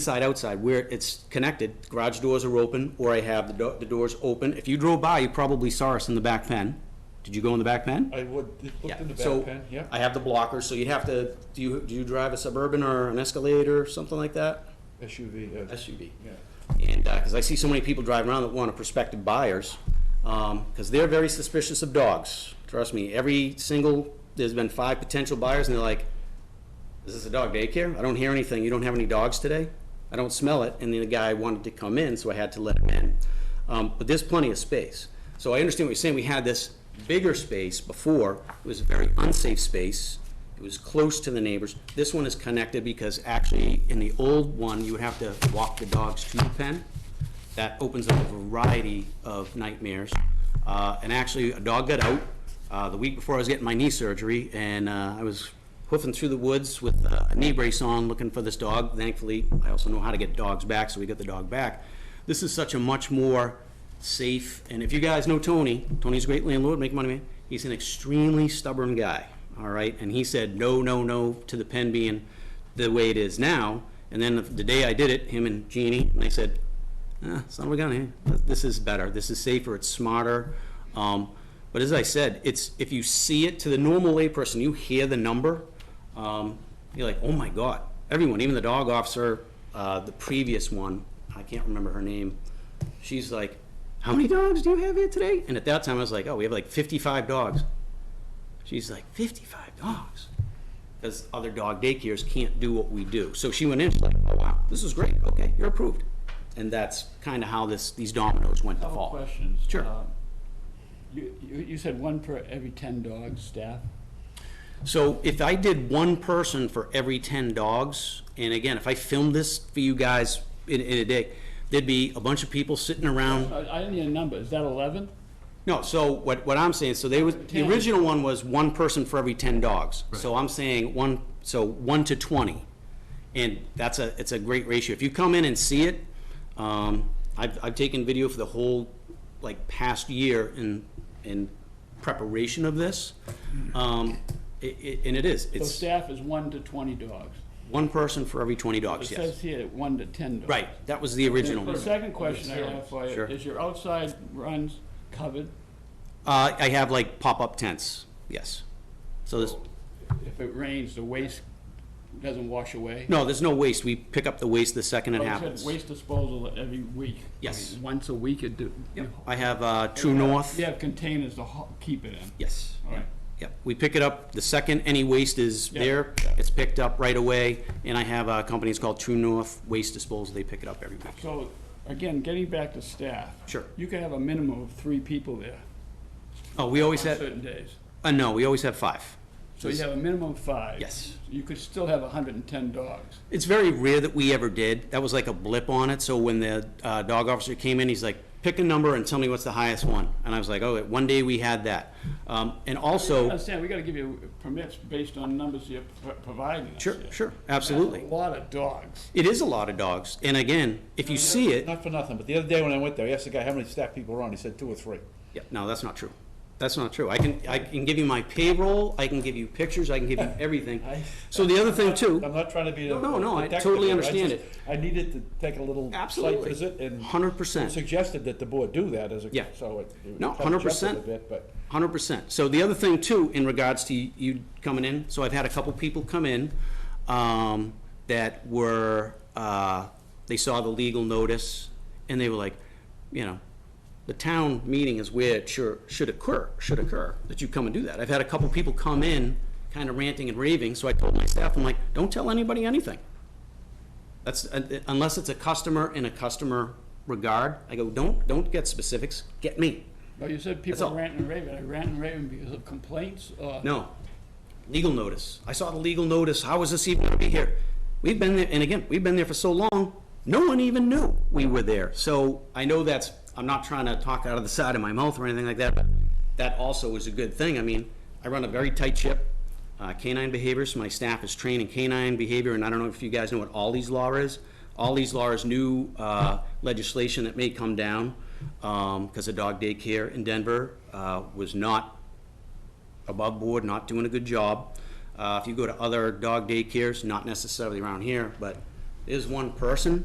inside, outside, where it's connected, garage doors are open, or I have the, do- the doors open. If you drove by, you probably saw us in the back pen. Did you go in the back pen? I would, it Yeah, looked in the so back pen, yeah. I have the blockers, so you'd have to, do you, do you drive a Suburban or an Escalator or something like that? SUV, uh, SUV. yeah. And, uh 'cause cause I see so many people drive around that want to prospective buyers, um, cause they're very suspicious of dogs. Trust me, every single, there's been five potential buyers and they're like, is this a dog daycare? I don't hear anything. You don't have any dogs today? I don't smell it. And then the guy wanted to come in, so I had to let him in. Um, but there's plenty of space. So I understand what you're saying. We had this bigger space before. It was a very unsafe space. It was close to the neighbors. This one is connected because actually, in the old one, you would have to walk the dogs to the pen. That opens up a variety of nightmares. Uh, and actually, a dog got out, uh, the week before I was getting my knee surgery, and, uh, I was hoofing through the woods with uh, a knee brace on, looking for this dog. Thankfully, I also know how to get dogs back, so we got the dog back. This is such a much more safe, and if you guys know Tony, Tony's a great landlord, make money man. He's an extremely stubborn guy, all right? And he said, no, no, no, to the pen being the way it is now. And then the- the day I did it, him and Jeannie, and they said, eh, it's not what we got here. This is better. This is safer. It's smarter. Um, but as I said, it's if you see it to the normal layperson, you hear the number, um, you're like, oh my god! Everyone, even the dog officer, uh, the previous one, I can't remember her name. She's like, how many dogs do you have here today? And at that time, I was like, oh, we have like 55 dogs. She's like, 55 dogs because other dog daycares can't do what we do. So she went in, she's like, oh, wow, this is great, okay, you're approved. And that's kind of how this, these dominoes went to Couple fall. questions. Sure. Uh, You, you you said one per every 10 dogs, staff? So if I did one person for every ten dogs, and again, if I filmed this for you guys in, in a day, there'd be a bunch of people sitting around. I I didn't need a number, is that 11? No, so what, what I'm saying, so they was, the 10. original one was one person for every ten dogs. So I'm saying one, so one to twenty. And that's a, it's a great ratio. If you come in and see it, um, I've, I've taken video for the whole, like, past year in, in preparation of this. Um, it, it, and it is, So it's staff is one to 20 dogs. one person for every twenty It dogs, yes. says here one to 10 dogs. Right, that was the original. The second question I have for you, Sure. is your outside runs covered? Uh, I have like pop-up tents, yes. So there's, If it rains, the waste doesn't wash away? no, there's no waste. We pick up the waste the second it But it Oh, said happens. Waste disposal every week. Yes. Once a week, it do? I have uh, True North. You have containers to ho- keep it in? Yes. All right. Yep. We pick it up the second any waste is Yeah. there. It's picked up right away. And I have a company, it's called True North Waste Disposal. They pick it up every week. So, again, getting back to staff. Sure. You could have a minimum of three people there Oh, we on always have, certain days. uh, no, we always have five. So you have a minimum of five. Yes. You could still have hundred and ten dogs. It's very rare that we ever did. That was like a blip on it. So when the uh, dog officer came in, he's like, pick a number and tell me what's the highest one. And I was like, oh, one day we had that. Um, And also, Understand, we gotta give you permits based on numbers you're pro- providing us sure, here. sure, That's absolutely. A lot of dogs. It is a lot of dogs. And again, if you see it, Not for nothing, but the other day when I went there, I asked the guy how many staff people were on, he said two or three. Yeah, no, that's not true. That's not true. I can, I can give you my payroll, I can give you pictures, I can give you everything. So the other thing I'm too, not trying to be. a- No, no, I detective totally here, understand just- I needed to take a little site Absolutely. visit and. 100%. Suggested that the board do that as Yeah. a, so it. it No, kind of jumped 100%. A bit, but. hundred percent. So the other thing too, in regards to you coming in, so I've had a couple people come in, um, that were, uh, they saw the legal notice and they were like, you know, the town meeting is where it sure, should occur, should occur, that you come and do that. I've had a couple people come in kind of ranting and raving, so I told my staff, I'm like, don't tell anybody anything. That's, uh, unless it's a customer in a customer regard, I go, don't, don't get specifics, get me. No, you said all. people ranting and raving. I rant and raving because of complaints or? No, legal notice. I saw the legal notice, how is this even gonna be here? We've been there, and again, we've been there for so long, no one even knew we were there. So I know that's, I'm not trying to talk out of the side of my mouth or anything like that, but that also is a good thing. I mean, I run a very tight ship, uh, canine behaviors, my staff is trained in canine behavior, and I don't know if you guys know what Ollie's Law is. Ollie's Law is new uh, legislation that may come down, because a dog daycare in Denver uh, was not above board, not doing a good job. Uh, If you go to other dog daycares, not necessarily around here, but There's one person,